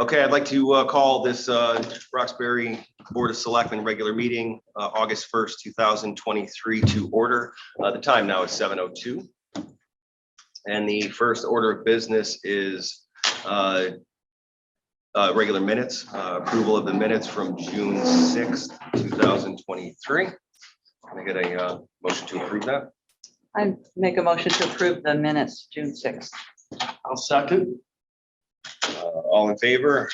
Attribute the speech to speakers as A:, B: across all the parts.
A: Okay, I'd like to uh, call this uh, Roxbury Board of Selectmen regular meeting, uh, August 1st, 2023 to order. Uh, The time now is 7:02. And the first order of business is uh, uh, regular minutes, uh, approval of the minutes from June 6th, 2023. Can I get a uh, motion to approve that?
B: I make a motion to approve the minutes, June sixth.
C: I'll second.
A: Uh, All in favor?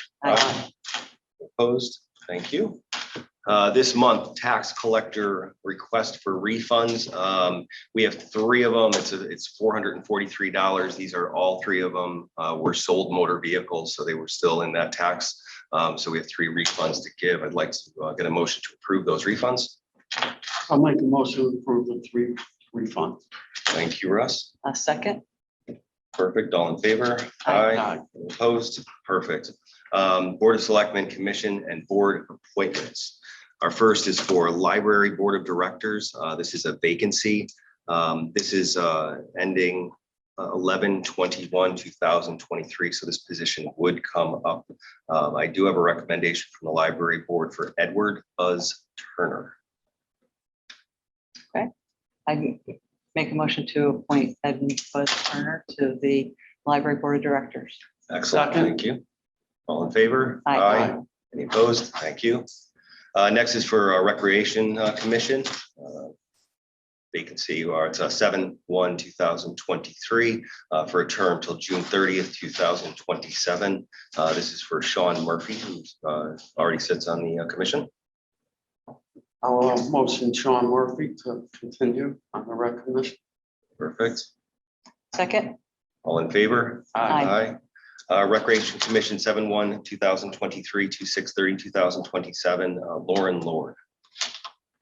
A: Opposed? Thank you. Uh, This month, tax collector request for refunds. Um, We have three of them. It's, a- it's $443. These are all three of them uh, were sold motor vehicles, so they were still in that tax. Um, So we have three refunds to give. I'd like to uh, get a motion to approve those refunds.
C: I'll make a motion to approve the three refunds.
A: Thank you, Russ.
B: A second?
A: Perfect. All in favor?
C: Aye.
A: Opposed? Perfect. Um, Board of Selectmen, Commission, and Board appointments. Our first is for Library Board of Directors. Uh, This is a vacancy. Um, This is uh, ending uh, eleven twenty-one, two thousand twenty-three, so this position would come up. Um, I do have a recommendation from the Library Board for Edward Buzz Turner.
B: I make a motion to appoint Ed Buzz Turner to the Library Board of Directors.
A: Excellent,
C: Second.
A: thank you. All in favor?
B: Aye.
A: Any opposed? Thank you. Uh, Next is for our Recreation uh, Commission. Uh, Vacancy, or it's uh, seven one, two thousand twenty-three, uh, for a term till June thirtieth, two thousand twenty-seven. Uh, This is for Sean Murphy, who uh, already sits on the uh, commission.
C: I'll uh, motion Sean Murphy to continue on the recognition.
A: Perfect.
B: Second?
A: All in favor?
B: Aye.
A: Aye. Uh, Recreation Commission, seven one, two thousand twenty-three to six thirty, two thousand twenty-seven, Lauren Lord.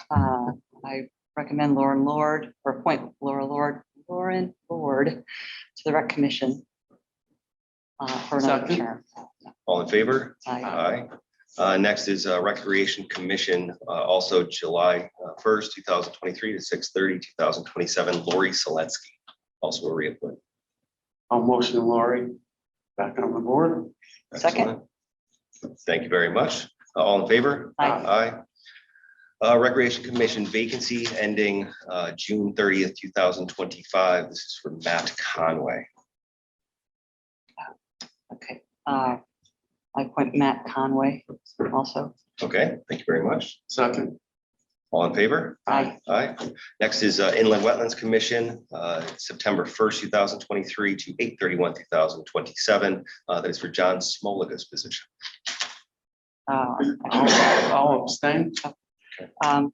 B: Uh, I recommend Lauren Lord, or appoint Laura Lord, Lauren Lord to the Rec Commission. uh, For another
C: Second.
B: term.
A: All in favor?
B: I
A: Aye. Uh, Next is uh, Recreation Commission, uh, also July uh, 1st, 2023 to 6:30, 2027. Lori Seletsky, also a reappointment.
C: I'll motion Lori back on the board.
B: Second.
A: Excellent. Thank you very much. Uh, All in favor?
B: Aye.
A: Aye. Uh, Recreation Commission vacancy ending uh, June 30th, 2025. This is for Matt Conway.
B: Okay. Uh, I appoint Matt Conway also.
A: Okay, thank you very much.
C: Second.
A: All in favor?
B: Aye.
A: Aye. Next is uh, Inland Wetlands Commission, uh, September 1st, 2023 to 8/31, 2027. Uh, That is for John Smoliga's position.
B: Uh,
C: I'll I'll abstain.
B: Um,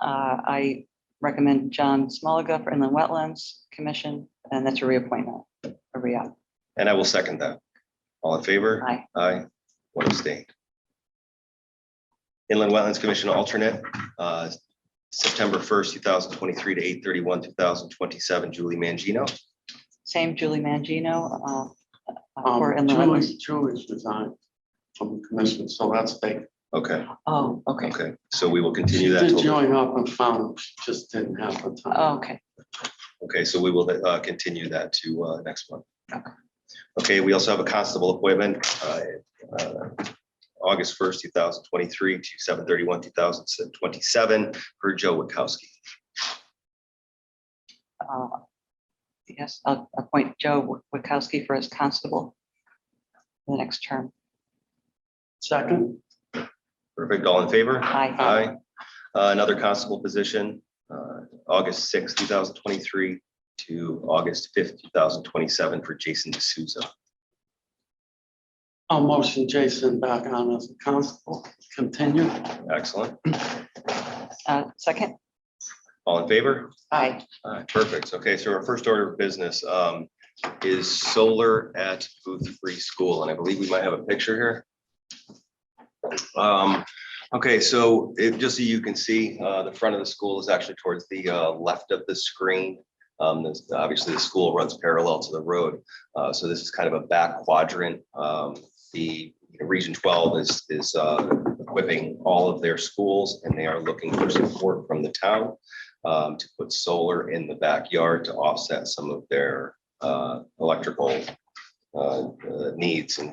B: uh, I recommend John Smoliga for Inland Wetlands Commission, and that's a reappointment, a re-up.
A: And I will second that. All in favor?
B: Aye.
A: Aye. One abstain. Inland Wetlands Commission alternate, uh, September 1st, 2023 to 8/31, 2027. Julie Mangino.
B: Same Julie Mangino, uh, uh, for
C: Um,
B: Inland Wetlands.
C: Julie's, Julie's resigned from the commission, so that's taken.
A: Okay,
B: Oh, okay,
A: okay. So we will continue that.
C: Did
A: till-
C: join up and found, she just didn't have the time.
B: Oh, okay.
A: Okay, so we will uh, continue that to uh, next one.
B: Okay.
A: Okay, we also have a constable appointment, uh, uh, August 1st, 2023 to 7:31, 2027 for Joe Witkowski.
B: Uh, Yes, I'll appoint Joe Witkowski for his constable for the next term.
C: Second.
A: Perfect, all in favor?
B: Aye.
A: Aye. Uh, Another constable position, uh, August 6th, 2023 to August 5th, 2027 for Jason D'Souza.
C: I'll motion Jason back on as a constable. Continue.
A: Excellent,
B: Uh, Second?
A: all in favor?
B: Aye.
A: All right, perfect. Okay, so our first order of business um, is solar at Booth Free School, and I believe we might have a picture here. Um, Okay, so if, just so you can see, uh, the front of the school is actually towards the uh, left of the screen. Um, there's- Obviously, the school runs parallel to the road, uh, so this is kind of a back quadrant. Um, The you know, Region 12 is, is uh, equipping all of their schools, and they are looking for support from the town um, to put solar in the backyard to offset some of their, uh, electrical, uh, uh, needs and